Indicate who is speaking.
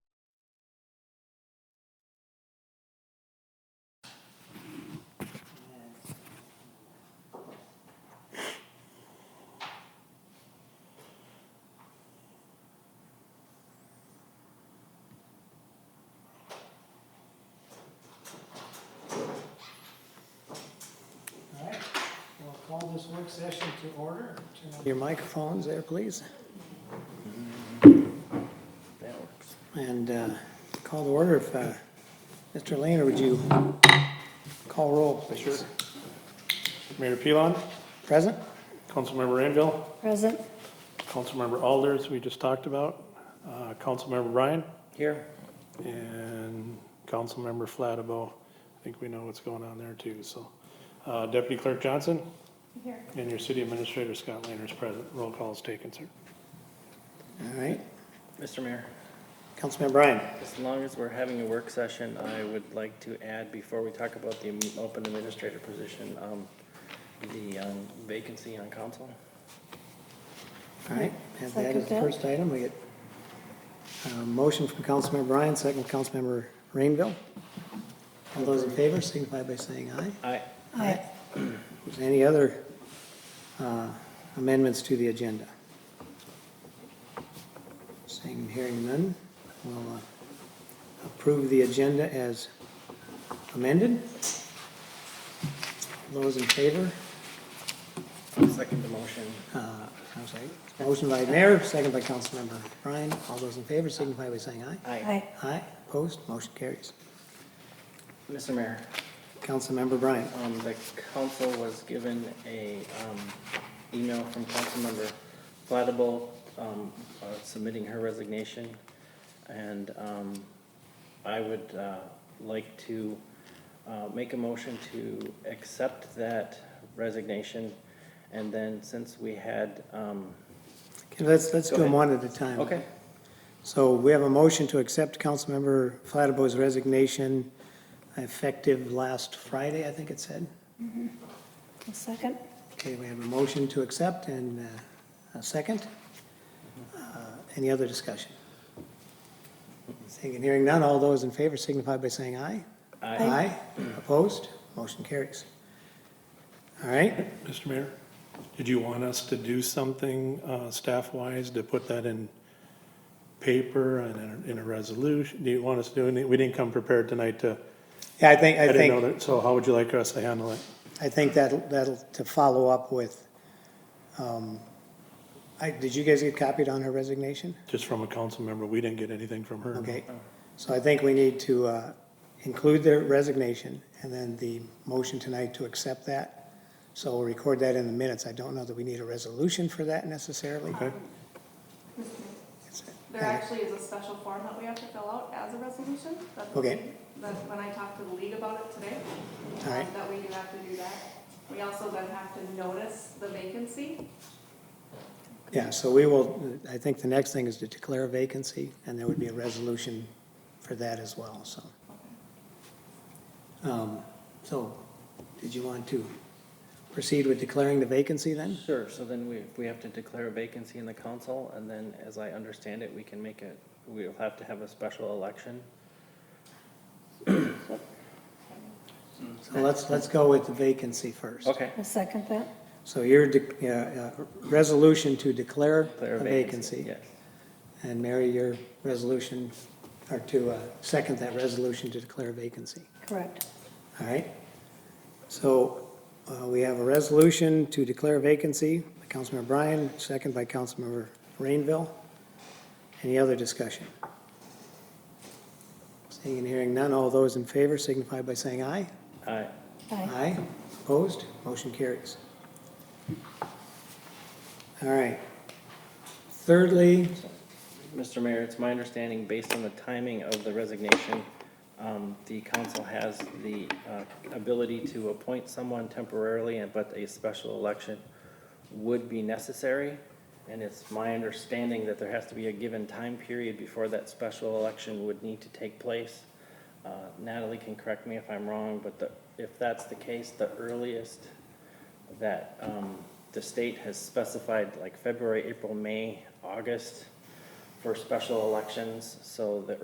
Speaker 1: work session to order. Turn on Your microphones there, please. And uh, call to order if, uh, Mr. Lehner, would you call roll, please?
Speaker 2: Mayor Pilon,
Speaker 1: Present?
Speaker 2: Councilmember Anvil,
Speaker 3: Present.
Speaker 2: Councilmember Alders, we just talked about, uh, Councilmember Ryan,
Speaker 1: Here.
Speaker 2: and Councilmember Flattabo. I think we know what's going on there too, so. Uh, Deputy Clerk Johnson?
Speaker 3: Here.
Speaker 2: And your City Administrator Scott Lehner is present. Roll call is taken, sir.
Speaker 1: All right.
Speaker 4: Mr. Mayor,
Speaker 1: Councilman Bryan.
Speaker 4: as long as we're having a work session, I would like to add, before we talk about the open administrator position, um, the um, vacancy on council.
Speaker 1: All right, and that
Speaker 3: Second
Speaker 1: is the
Speaker 3: that.
Speaker 1: first item. We get a motion from Councilmember Bryan, second from Councilmember Rainville. All those in favor signify by saying aye.
Speaker 4: I,
Speaker 3: Aye.
Speaker 1: Is there Any other uh, amendments to the agenda? Seeing and hearing none, we'll uh, approve the agenda as amended. Those in favor,
Speaker 4: second the motion.
Speaker 1: uh, I'm sorry, motion by Mayor, second by Councilmember Bryan. All those in favor signify by saying aye.
Speaker 4: I,
Speaker 1: Aye, opposed, motion carries.
Speaker 4: Mr. Mayor,
Speaker 1: Councilmember Bryan.
Speaker 4: um, the council was given a, um, email from Councilmember Flattable, um, uh, submitting her resignation. And, um, I would, uh, like to, uh, make a motion to accept that resignation. And then since we had, um,
Speaker 1: Okay, Let's, let's do
Speaker 4: Go
Speaker 1: them
Speaker 4: ahead.
Speaker 1: one at a time.
Speaker 4: okay,
Speaker 1: So we have a motion to accept Councilmember Flattaboy's resignation effective last Friday, I think it said.
Speaker 3: A second?
Speaker 1: Okay, we have a motion to accept and uh, a second. Uh, Any other discussion? Seeing and hearing none, all those in favor signify by saying aye.
Speaker 4: I,
Speaker 1: Aye. Opposed? Motion carries. All right,
Speaker 2: Mr. Mayor, did you want us to do something, uh, staff-wise to put that in paper and in a, in a resolution? Do you want us to do anything? We didn't come prepared tonight to,
Speaker 1: yeah, I think,
Speaker 2: I
Speaker 1: I
Speaker 2: didn't know
Speaker 1: think,
Speaker 2: that, so how would you like us to handle it?
Speaker 1: I think that'll, that'll, to follow up with, um, I, did you guys get copied on her resignation?
Speaker 2: Just from a council member, we didn't get anything from her.
Speaker 1: Okay, so I think we need to uh, include their resignation and then the motion tonight to accept that. So we'll record that in the minutes. I don't know that we need a resolution for that necessarily.
Speaker 2: Okay.
Speaker 5: There actually is a special form that we have to fill out as a resolution. That's what
Speaker 1: Okay.
Speaker 5: we- That's when I talked to the league about it today. um,
Speaker 1: Alright.
Speaker 5: That we do have to do that. We also then have to notice the vacancy.
Speaker 1: Yeah, so we will, I think the next thing is to declare a vacancy, and there would be a resolution for that as well, so. Um, So, did you want to proceed with declaring the vacancy then?
Speaker 4: sure, so then we, we have to declare a vacancy in the council, and then, as I understand it, we can make it, we'll have to have a special election.
Speaker 1: So let's, let's go with the vacancy first.
Speaker 4: Okay,
Speaker 3: A second that?
Speaker 1: So your de- uh, uh, resolution to declare
Speaker 4: declare
Speaker 1: a
Speaker 4: a vacancy,
Speaker 1: vacancy,
Speaker 4: yes.
Speaker 1: and Mary, your resolution, or to uh, second that resolution to declare a vacancy.
Speaker 3: Correct.
Speaker 1: All right? So uh, we have a resolution to declare a vacancy by Councilmember Bryan, second by Councilmember Rainville. Any other discussion? Seeing and hearing none, all those in favor signify by saying aye.
Speaker 4: Aye.
Speaker 3: Aye.
Speaker 1: Aye, opposed, motion carries. All right. Thirdly,
Speaker 4: Mr. Mayor, it's my understanding, based on the timing of the resignation, um, the council has the uh, ability to appoint someone temporarily, and but a special election would be necessary. And it's my understanding that there has to be a given time period before that special election would need to take place. Uh, Natalie can correct me if I'm wrong, but the- if that's the case, the earliest that um, the state has specified like February, April, May, August for special elections. So the